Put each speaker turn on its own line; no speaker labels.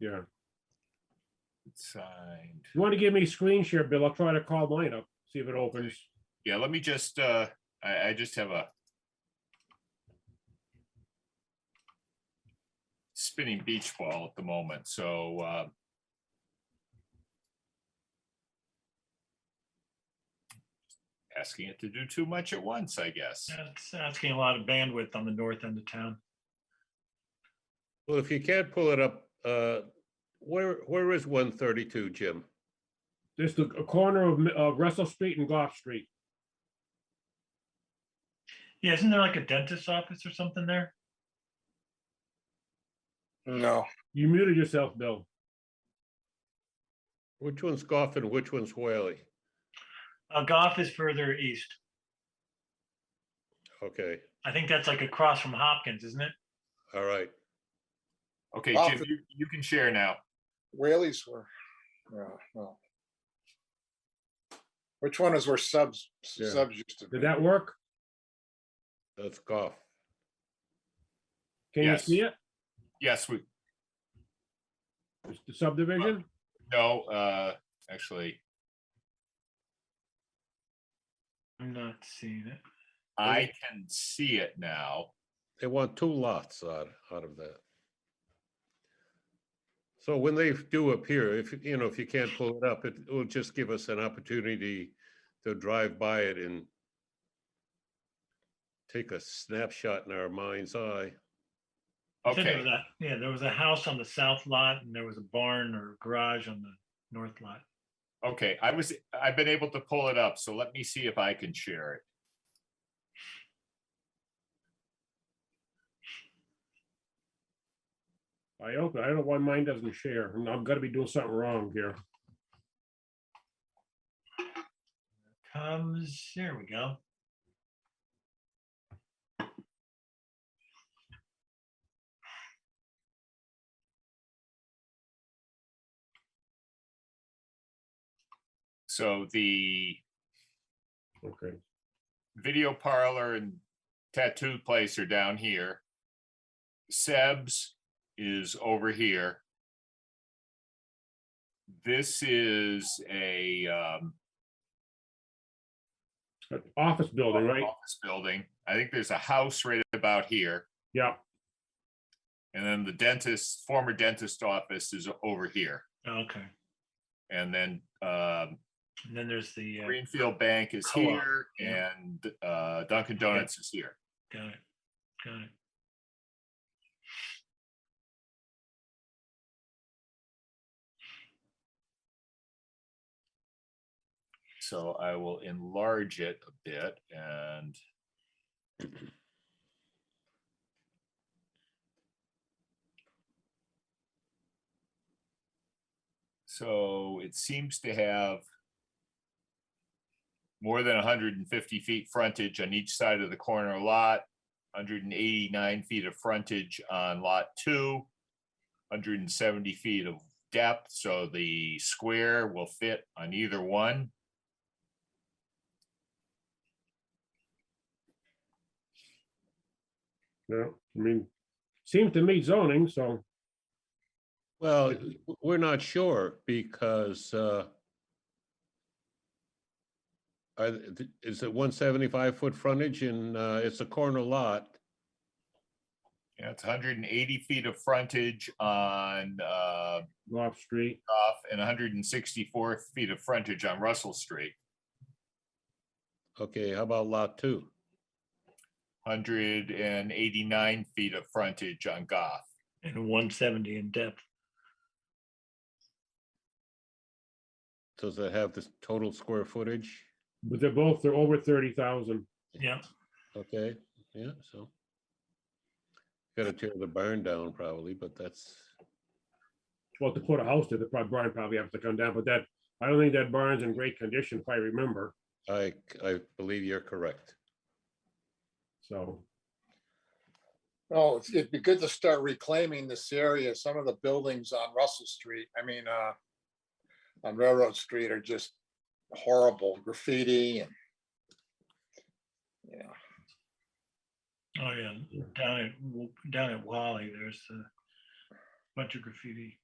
Yeah.
Signed.
You want to give me a screen share, Bill? I'll try to call mine up, see if it opens.
Yeah, let me just, uh, I, I just have a spinning beach ball at the moment, so, uh, asking it to do too much at once, I guess.
Yeah, It's asking a lot of bandwidth on the north end of town.
Well, if you can't pull it up, uh, where, where is one thirty-two, Jim?
This the a corner of Mi- of Russell Street and Goff Street.
Yeah, isn't there like a dentist's office or something there?
No,
You muted yourself, Bill.
Which one's Goff and which one's Whaley?
Uh, Goff is further east.
Okay,
I think that's like across from Hopkins, isn't it?
all right.
Okay,
Wow.
Jim, you, you can share now.
Whaley's were, no, no. Which one is where subs,
Yeah.
subs used to be?
Did that work?
That's Goff.
Can you
Yes.
see it?
Yes, we,
It's The subdivision?
no, uh, actually,
I'm not seeing it.
I can see it now.
They want two lots out, out of that. So when they do appear, if, you know, if you can't pull it up, it will just give us an opportunity to drive by it and take a snapshot in our mind's eye.
I think there
Okay,
was a- Yeah, there was a house on the south lot and there was a barn or garage on the north lot.
okay, I was, I've been able to pull it up, so let me see if I can share it.
I open, I don't know why mine doesn't share. i have got to be doing something wrong here.
Comes, there we go.
So the
Okay.
video parlor and tattoo place are down here. Seb's is over here. This is a um,
Uh, Office building, right?
office building. I think there's a house right about here.
Yeah.
And then the dentist, former dentist office is over here.
Okay.
And then um,
And then there's the, uh,
Greenfield Bank is
Co-op,
here
yeah.
and uh, Dunkin' Donuts is here.
got it, got it.
So I will enlarge it a bit and so it seems to have more than hundred and fifty feet frontage on each side of the corner lot, hundred and eighty-nine feet of frontage on lot two, hundred and seventy feet of depth, so the square will fit on either one.
Yeah, I mean, seems to meet zoning, so
Well, w- we're not sure because uh, are th- th- is it one seventy-five foot frontage and uh, it's a corner lot?
Yeah, it's hundred and eighty feet of frontage on uh
off street.
off and hundred and sixty-four feet of frontage on Russell Street.
Okay, how about lot two?
Hundred and eighty-nine feet of frontage on Goff.
And one seventy in depth.
Does it have the total square footage?
But they're both, they're over thirty thousand.
Yeah,
Okay, yeah, so. Gotta tear the barn down probably, but that's,
Well, to put a house there, the prob- barn probably has to come down, but that, I don't think that barn's in great condition if I remember,
I, I believe you're correct.
so.
Oh, it's- it'd be good to start reclaiming this area. Some of the buildings on Russell Street, I mean, uh, on Railroad Street are just horrible graffiti and yeah,
oh yeah, down at, W- down at Wally, there's a bunch of graffiti.